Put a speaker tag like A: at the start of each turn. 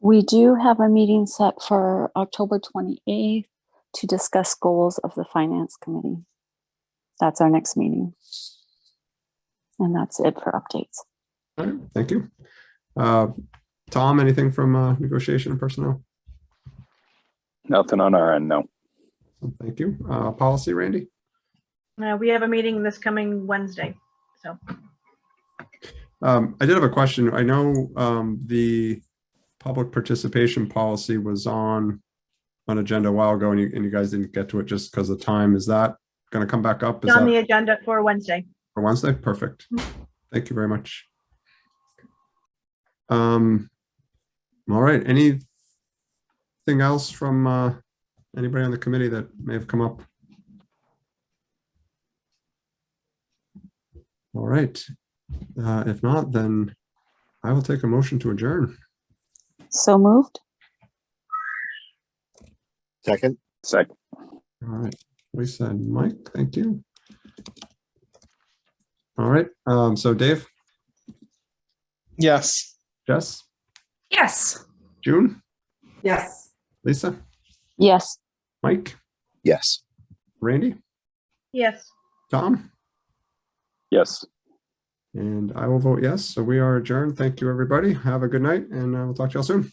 A: We do have a meeting set for October 28th to discuss goals of the Finance Committee. That's our next meeting. And that's it for updates.
B: All right, thank you. Uh, Tom, anything from uh, negotiation and personnel?
C: Nothing on our end, no.
B: Thank you. Uh, Policy, Randy?
D: Uh, we have a meeting this coming Wednesday, so.
B: Um, I did have a question. I know um, the public participation policy was on an agenda a while ago and you, and you guys didn't get to it just because of time. Is that going to come back up? Is
D: It's on the
B: that
D: agenda for Wednesday.
B: for Wednesday? Perfect. Thank you very much. Um, all right, anything else from uh, anybody on the committee that may have come up? All right, uh, if not, then I will take a motion to adjourn.
A: So moved?
E: Second,
C: Second,
B: All right, Lisa and Mike, thank you. All right, um, so Dave,
F: Yes.
B: Jess,
D: Yes.
B: June,
G: Yes.
B: Lisa,
A: Yes.
B: Mike,
E: yes.
B: Randy,
D: Yes.
B: Tom?
C: yes.
B: And I will vote yes. So we are adjourned. Thank you, everybody. Have a good night and I will uh, talk to y'all soon.